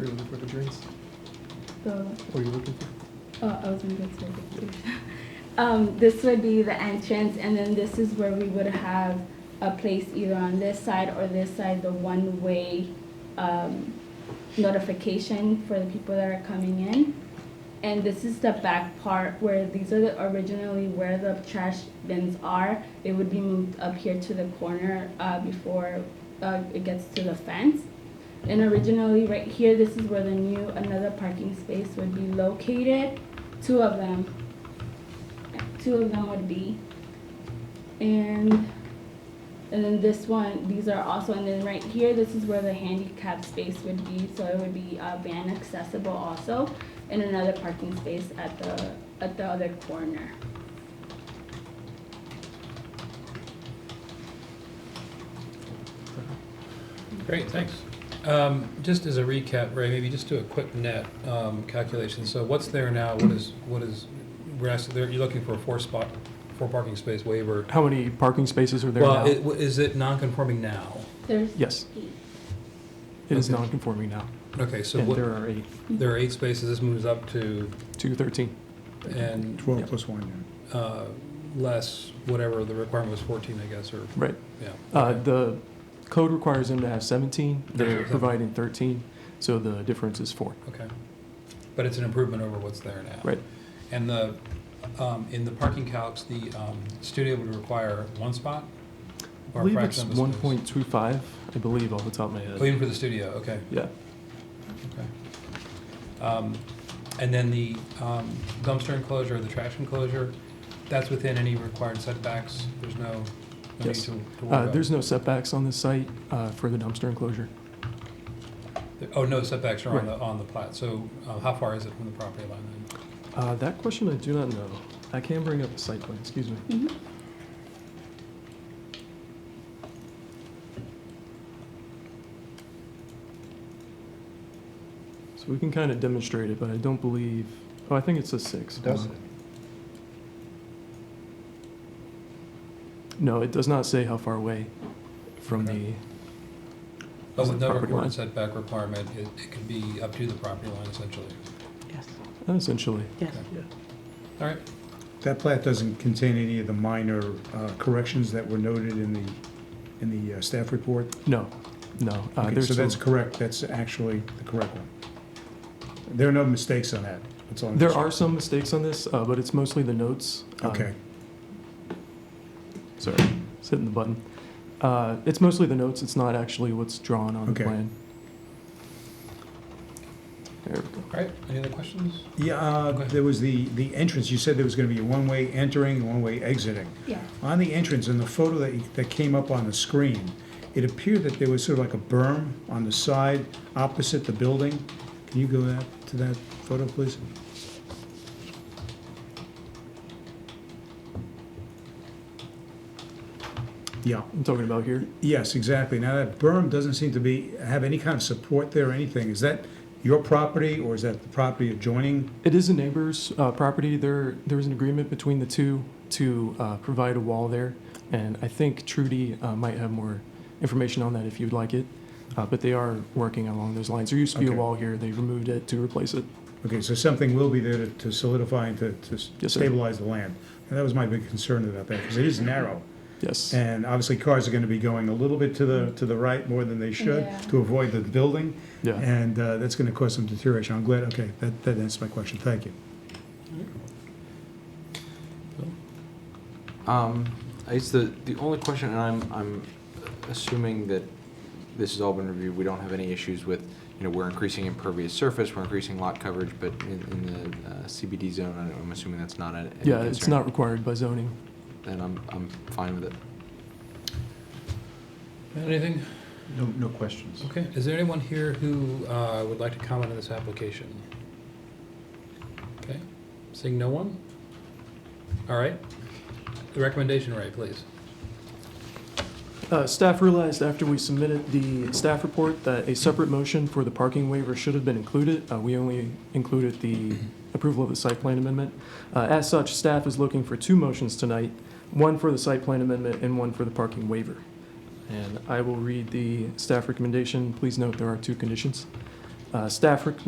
you're looking for the grades? The, What are you looking for? oh, I was in good service. Um, this would be the entrance, and then this is where we would have a place either on this side or this side, the one-way, um, notification for the people that are coming in. And this is the back part where these are the, originally where the trash bins are. They would be moved up here to the corner, uh, before, uh, it gets to the fence. And originally, right here, this is where the new, another parking space would be located, two of them. Two of them would be. And, and then this one, these are also, and then right here, this is where the handicap space would be, so it would be, uh, van accessible also. And another parking space at the, at the other corner. Great, thanks. Um, Just as a recap, Ray, maybe just do a quick net um, calculation. So what's there now? What is, what is, we're asking, there- you're looking for a four spot, four parking space waiver. How many parking spaces are there now? Well, it- is it non-conforming now? There's Yes, eight. it is Okay. non-conforming now, Okay, so and what, there are eight, there are eight spaces, this moves up to, two thirteen. and Yeah. Twelve plus one, yeah. uh, less, whatever, the requirement was 14, I guess, or, Right. yeah. Uh, okay. the code requires them to have seventeen, Yeah, they're yeah. providing thirteen, so the difference is four. Okay. But it's an improvement over what's there now. Right. And the, um, in the parking calcs, the um, studio would require one spot? I or a believe it's fraction of a one space? point two five, I believe, off the top of my Oh, head. Even for the studio, okay, Yeah, okay. Um, And then the um, dumpster enclosure, the trash enclosure, that's within any required setbacks? There's no, no need Yes. to to worry uh, about? there's no setbacks on this site, uh, for the dumpster enclosure. Oh, no setbacks are on Right. the, on the plat, so uh, how far is it from the property line then? Uh, that question I do not know. I can bring up the site plan, excuse me. Mhm. So we can kind of demonstrate it, but I don't believe, oh, I think it's a six. Hold Does on. it? No, it does not say how far away from the, Okay. But with no Property line. required setback requirement, it, it could be up to the property line essentially. Yes, Uh, essentially. yes. All right, That plat doesn't contain any of the minor uh, corrections that were noted in the, in the uh, staff report? No, no. uh, Okay, there's so that's some- correct, that's actually the correct one. There are no mistakes on that, that's all. I'm There just- are some mistakes on this, uh, but it's mostly the notes. Um, Okay, Sorry, it's hitting the button. Uh, It's mostly the notes, it's not actually what's drawn on the Okay. plan. There we go. all right, any other questions? yeah, uh, Okay. there was the, the entrance, you said there was gonna be a one-way entering, and one-way exiting. Yeah. On the entrance, in the photo that, you- that came up on the screen, it appeared that there was sort of like a berm on the side opposite the building. Can you go that, to that photo, please? Yeah, I'm talking about here. yes, exactly. Now, that berm doesn't seem to be, have any kind of support there or anything. Is that your property, or is that the property adjoining? It is a neighbor's uh, property. There, there was an agreement between the two to uh, provide a wall there. And I think Trudy uh, might have more information on that if you'd like it. Uh, But they are working along those lines. There used to be a Okay. wall here, they removed it to replace it. Okay, so something will be there to- to solidify and to to Yes, sir. stabilize the land. And that was my big concern about that, because it is narrow. Yes, And obviously, cars are gonna be going a little bit to the, to the right more than they should Yeah. to avoid the building. yeah. And uh, that's gonna cause some deterioration. I'm glad, okay, that, that answers my question. Thank you. Um, it's the, the only question, and I'm, I'm assuming that this has all been reviewed, we don't have any issues with, you know, we're increasing impervious surface, we're increasing lot coverage, but in, in the uh, CBD zone, I don't- I'm assuming that's not a. any Yeah, it's concern. not required by zoning. Then I'm, I'm fine with it. Anything? No, no questions. Okay, is there anyone here who uh, would like to comment on this application? Okay, seeing no one? All right, the recommendation, Ray, please. Uh, Staff realized after we submitted the staff report that a separate motion for the parking waiver should have been included. Uh, We only included the approval of the site plan amendment. Uh, As such, staff is looking for two motions tonight, one for the site plan amendment and one for the parking waiver. And I will read the staff recommendation. Please note there are two conditions. Uh, Uh, Staff rec-